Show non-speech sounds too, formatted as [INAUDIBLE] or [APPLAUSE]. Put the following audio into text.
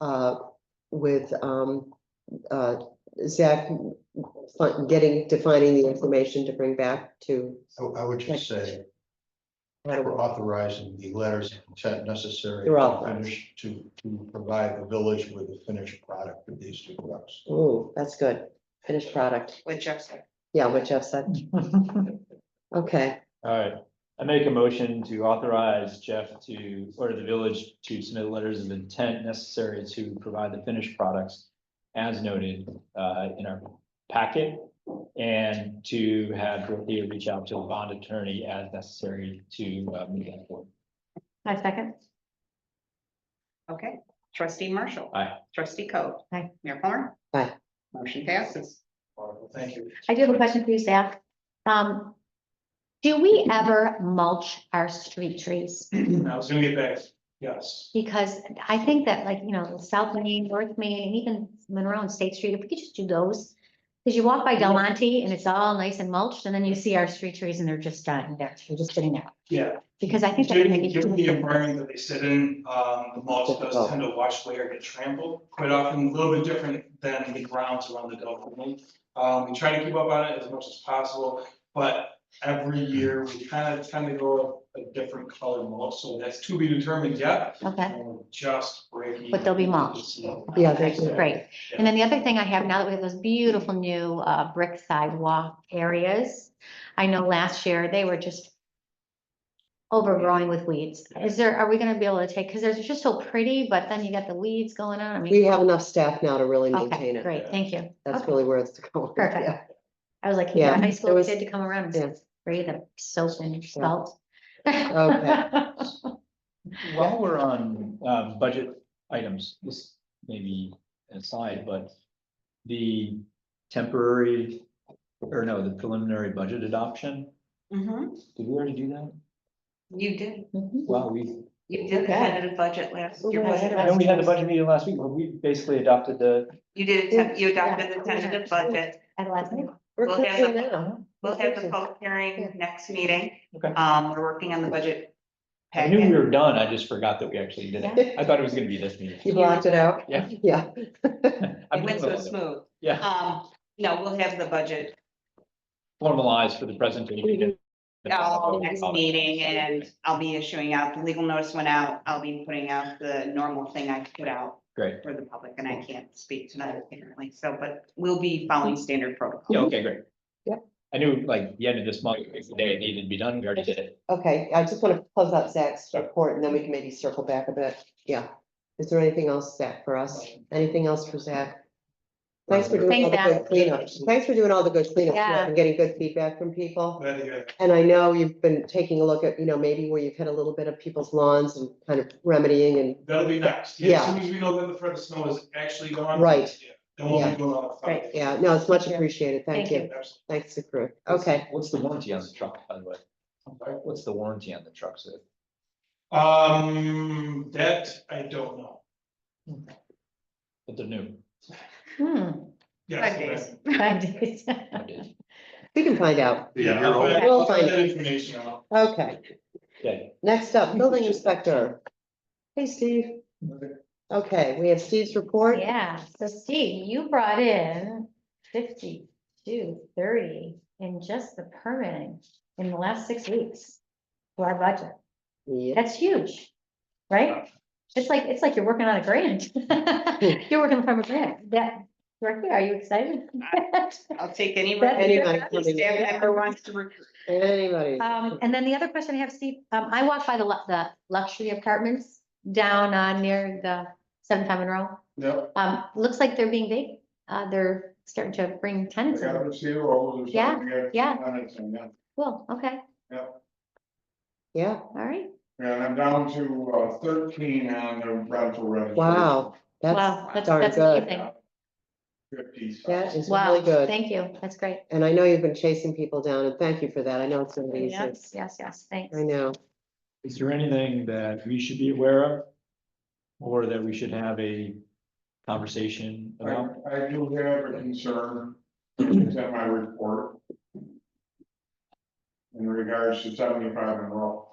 uh, with, um, uh, Zach fin- getting, defining the information to bring back to. I, I would just say, we're authorizing the letters of consent necessary. They're to authorized. finish- To, to provide the village with a finished product of these two trucks. Ooh, that's good. Finished product. With Jeff said. Yeah, what Jeff [LAUGHS] said. Okay, All right, I make a motion to authorize Jeff to, or the village to submit letters of intent necessary to provide the finished products. As noted uh in our packet and to have Dorothea reach out to the bond attorney as necessary to uh move that forward. My second. Okay, trustee Marshall. Aye. Trustee Co. Aye. Mayor Plummer. Aye. Motion passes. Wonderful, Thank you. I do have a question for you, Zach. Um, do we ever mulch our street trees? I was gonna get back, yes. Because I think that like, you know, South Main, North Main, and even Monroe and State Street, if we could just do those. Because you walk by Del Monte and it's all nice and mulched, and then you see our street trees and they're just dying there, they're just sitting there. Yeah. Because I think. that would make a Given given the huge difference. environment that they sit in, um, the mulch does tend to wash away or get trampled. Quite often, a little bit different than the grounds around the Gulf. Coast. Um, we try to keep up on it as much as possible, but every year we kind of tend to go a different color mulch, so that's to be determined yet. Okay, And we're Just breaking. But they'll be mulched. Yeah, thank you. great. And then the other thing I have now that we have those beautiful new uh brick sidewalk areas. I know last year they were just. Overgrowing with weeds. Is there, are we gonna be able to take, because they're just so pretty, but then you got the weeds going on. I we mean, have enough staff now to really maintain okay, it. great, thank you. That's Okay. really where it's going. Perfect. Yeah. I was like, you're Yeah, a high there school was- kid to come around yeah. and spray the soap and salt. [LAUGHS] Okay. While we're on um budget items, this may be aside, but the temporary. Or no, the preliminary budget adoption, Mhm. did we already do that? You did, Mhm. Wow, we you did the tentative budget last Ooh, year. I had wasn't a- I it? know we had the budget meeting last week, but we basically adopted the, You did, a tem- you adopted the Yeah. tentative budget. [LAUGHS] At last minute. We're We'll have cooking the- now. We'll have the Okay. public hearing next meeting. Okay. Um, we're working on the budget. I knew we packet. were done, I just forgot that we actually did it. I thought it was gonna be this [LAUGHS] meeting. You blocked it out? Yeah. Yeah, I'm [LAUGHS] It went so gonna- smooth. Yeah, Um, no, we'll have the budget formalized for the presentation. all next meeting and I'll be issuing out, the legal notice went out, I'll be putting out the normal thing I put out Great, for the public and I can't speak tonight apparently, so, but we'll be following standard yeah, protocol. okay, great. Yep. I knew like the end of this month, the day it needed to be done, we already did it. okay. I just want to close out Zach's report and then we can maybe circle back a bit. Yeah. Is there anything else, Zach, for us? Anything else for Zach? Thanks for doing all the Thanks, good cleanup. Thanks for doing all the good cleanup Yeah. and getting good feedback from people. Glad to hear that. And I know you've been taking a look at, you know, maybe where you've hit a little bit of people's lawns and kind of remedying and That'll be next. Yeah. As soon as we know that the threat of snow is actually gone. Right. yeah, Then we'll Yeah. be doing all the. Right. Yeah, no, it's much appreciated. Thank Thank you. Absolutely. Thanks, the crew. Okay, What's the warranty on the truck, by the way? What's the warranty on the trucks? Um, that I don't know. But they're new. Hmm, Yes, Five [LAUGHS] days. five days. [LAUGHS] we can find out. Yeah. You're I'll- open. I'll We'll find find that information out. Okay, Okay, next up, building inspector. Hey, Steve. Okay, we have Steve's report. Yeah, so Steve, you brought in fifty-two, thirty in just the permitting in the last six weeks to our budget. Yeah. That's huge, right? It's like, it's like you're working on a grant. [LAUGHS] You're working from a grant. That, right there, are you excited? [LAUGHS] I'll take any. That's- Anybody Staff coming? member wants to recruit. Anybody? Um, and then the other question I have, Steve, um, I walked by the, lu- the luxury apartments down on near the seven time in row. Yep. Um, looks like they're being big. Uh, they're starting to bring tenants in. Yeah, yeah. Well, okay, Yeah, all right. And I'm down to uh, thirteen on the rental revenue. wow, that's Wow, that's, darn that's good. amazing. Fifty. so- that is really Wow, good. thank you. That's great. And I know you've been chasing people down and thank you for that. I know it's not easy. I Yes, yes, yes, thanks. know. is there anything that we should be aware of? Or that we should have a conversation I, about? I do have a concern, it's in my report. In regards to seventy-five and roll.